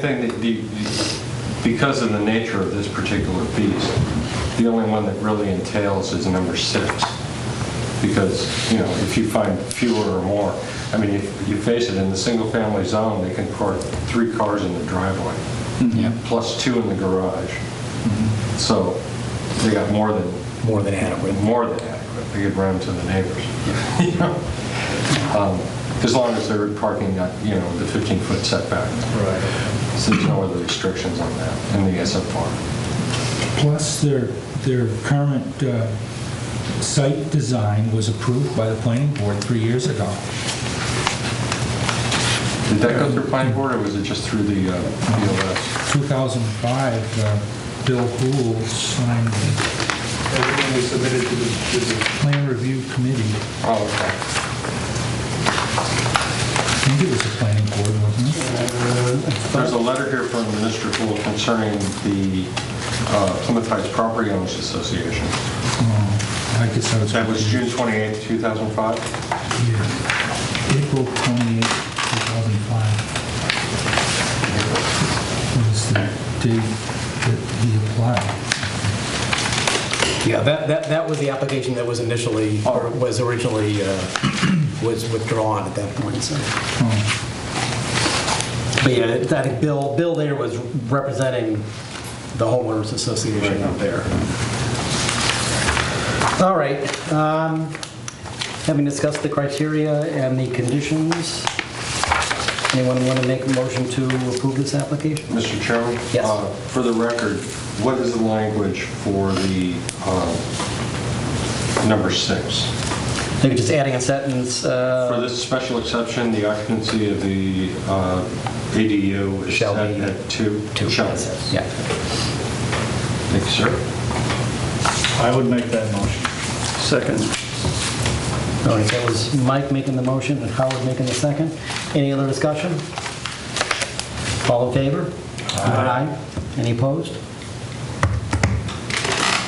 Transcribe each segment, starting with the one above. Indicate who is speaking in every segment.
Speaker 1: thing that the, the- because of the nature of this particular piece, the only one that really entails is number six. Because, you know, if you find fewer or more, I mean, if you face it, in the single-family zone, they can park three cars in the driveway,
Speaker 2: Yeah,
Speaker 1: plus two in the garage. So they got more than,
Speaker 2: more than adequate.
Speaker 1: more than adequate. They could rent to the neighbors, you know? Um, As long as they're parking, at, you know, the 15-foot setback.
Speaker 2: Right.
Speaker 1: So there's no other restrictions on that in the SFR.
Speaker 3: Plus, their, their current uh, site design was approved by the planning board three years ago.
Speaker 1: Did that go through planning board, or was it just through the uh, BOS?
Speaker 3: 2005, uh, Bill Hool signed the
Speaker 4: Everything was submitted to the, to the,
Speaker 3: plan review committee.
Speaker 1: Oh,
Speaker 3: I think it was the planning board, wasn't it?
Speaker 1: okay. There's a letter here from Minister Poole concerning the uh, Plymouth Heights Property Owners Association.
Speaker 3: Oh, I guess I was...
Speaker 1: That was June 28, 2005?
Speaker 3: Yeah. April 28, 2005. Was the date that he applied.
Speaker 2: Yeah, that, that, that was the application that was initially, or was originally, uh, was withdrawn at that point, so.
Speaker 3: Oh.
Speaker 2: But yeah, I think Bill, Bill there was representing the homeowners association out there. All right, um, having discussed the criteria and the conditions, anyone want to make a motion to approve this application?
Speaker 1: Mr. Chairman?
Speaker 2: Yes.
Speaker 1: uh, For the record, what is the language for the um, number six?
Speaker 2: Maybe just adding a sentence, uh,
Speaker 1: For this special exception, the occupancy of the uh, ADU is
Speaker 2: Shall
Speaker 1: set
Speaker 2: be-
Speaker 1: at two.
Speaker 2: to,
Speaker 1: Shall.
Speaker 2: yeah.
Speaker 1: Thank you, sir.
Speaker 5: I would make that motion. Second.
Speaker 2: All right, that was Mike making the motion and Howard making the second. Any other discussion? All in favor? Aye. Any opposed?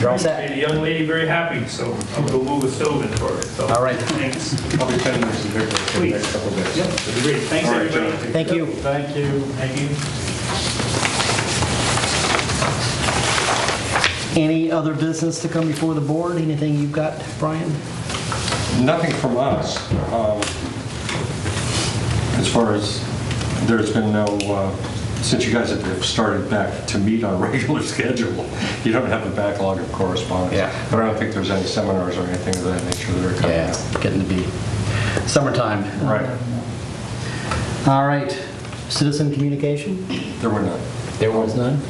Speaker 2: You're all set.
Speaker 4: the young lady very happy, so I'm gonna move a stove in for it, so.
Speaker 2: All right.
Speaker 4: Thanks.
Speaker 1: I'll be sending this to Victor for the next couple of days.
Speaker 4: Great, thanks,
Speaker 1: All right,
Speaker 4: everybody.
Speaker 2: Thank you.
Speaker 4: Thank you. Thank you.
Speaker 2: Any other business to come before the board? Anything you've got, Brian?
Speaker 1: Nothing from us, um, as far as, there's been no, uh, since you guys have started back to meet on a regular schedule, you don't have a backlog of correspondence.
Speaker 2: Yeah.
Speaker 1: But I don't think there's any seminars or anything of that nature that are coming up.
Speaker 2: Getting to be summertime.
Speaker 1: Right,
Speaker 2: All right, citizen communication?
Speaker 1: there were none.
Speaker 2: There was none.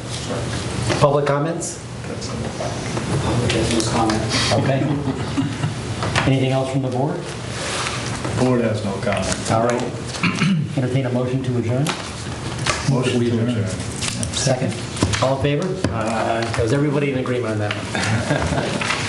Speaker 2: Public comments?
Speaker 6: Business comment.
Speaker 2: Okay. Anything else from the board?
Speaker 5: Board has no comment.
Speaker 2: All right. Entertain a motion to adjourn?
Speaker 5: Motion to adjourn.
Speaker 2: Second. All in favor? Because everybody in agreement on that one.